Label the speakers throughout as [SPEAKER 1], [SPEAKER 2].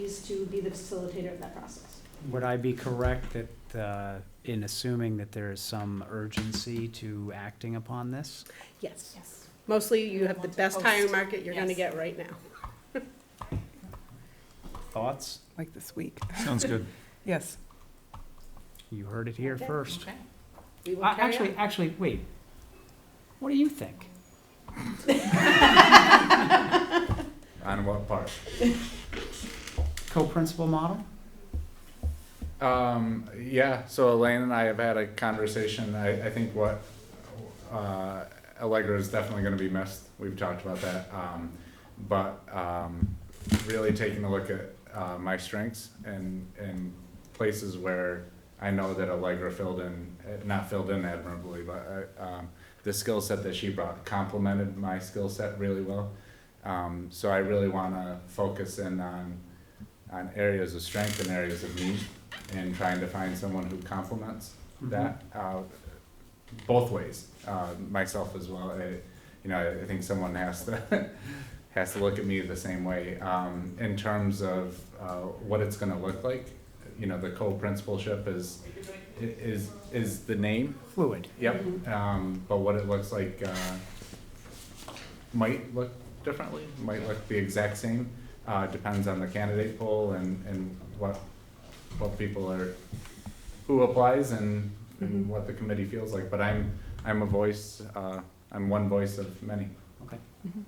[SPEAKER 1] is to be the facilitator of that process.
[SPEAKER 2] Would I be correct that, uh, in assuming that there is some urgency to acting upon this?
[SPEAKER 3] Yes.
[SPEAKER 1] Yes.
[SPEAKER 3] Mostly you have the
[SPEAKER 1] Want to
[SPEAKER 3] best hiring
[SPEAKER 1] post.
[SPEAKER 3] market you're gonna
[SPEAKER 1] Yes.
[SPEAKER 3] get right now.
[SPEAKER 2] Thoughts?
[SPEAKER 4] like this week.
[SPEAKER 5] Sounds good.
[SPEAKER 4] Yes.
[SPEAKER 2] You heard it here
[SPEAKER 1] Okay.
[SPEAKER 2] first.
[SPEAKER 3] We will
[SPEAKER 2] Uh,
[SPEAKER 3] carry
[SPEAKER 2] Actually,
[SPEAKER 3] on.
[SPEAKER 2] actually, wait. What do you think?
[SPEAKER 5] On what part?
[SPEAKER 2] Co-principal model?
[SPEAKER 5] Um, yeah, so Elaine and I have had a conversation. I, I think what uh, Allegra is definitely going to be missed. We've talked about that. Um, but um, really taking a look at uh, my strengths and, and places where I know that Allegra filled in, eh, not filled in admirably, but uh, um, the skill set that she brought complemented my skill set really well. Um, so I really want to focus in on, on areas of strength and areas of need and trying to find someone who complements
[SPEAKER 2] Mm-hmm.
[SPEAKER 5] that uh, both ways, uh, myself as well. I, you know, I, I think someone has to has to look at me the same way um, in terms of uh, what it's going to look like. You know, the co-principalship is is is the name.
[SPEAKER 2] Fluid.
[SPEAKER 5] Yep. Um, but what it looks like uh, might look differently, might look the exact same. Uh, depends on the candidate pool and, and what what people are who applies and, and what the committee feels like. But I'm I'm a voice. Uh, I'm one voice of many.
[SPEAKER 2] Okay.
[SPEAKER 4] Mhm.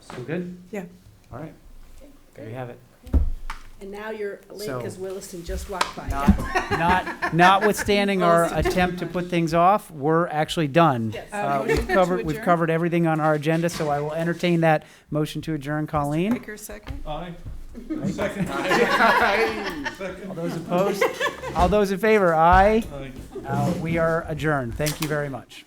[SPEAKER 2] Still good?
[SPEAKER 4] Yeah.
[SPEAKER 2] All right. There you have it.
[SPEAKER 3] And now you're late
[SPEAKER 2] So-
[SPEAKER 3] because Williston just walked by.
[SPEAKER 2] Not, not, notwithstanding our attempt to put things off, we're actually done.
[SPEAKER 3] Yes.
[SPEAKER 4] Uh,
[SPEAKER 2] Uh, we've
[SPEAKER 4] motion to
[SPEAKER 2] covered, we've
[SPEAKER 4] adjourn?
[SPEAKER 2] covered everything on our agenda, so I will entertain that motion to adjourn. Colleen,
[SPEAKER 4] Baker, second?
[SPEAKER 6] Aye.
[SPEAKER 2] Aye.
[SPEAKER 6] Second.
[SPEAKER 2] all
[SPEAKER 6] Second.
[SPEAKER 2] those opposed, all those in favor, aye.
[SPEAKER 6] Aye.
[SPEAKER 2] Uh, we are adjourned. Thank you very much.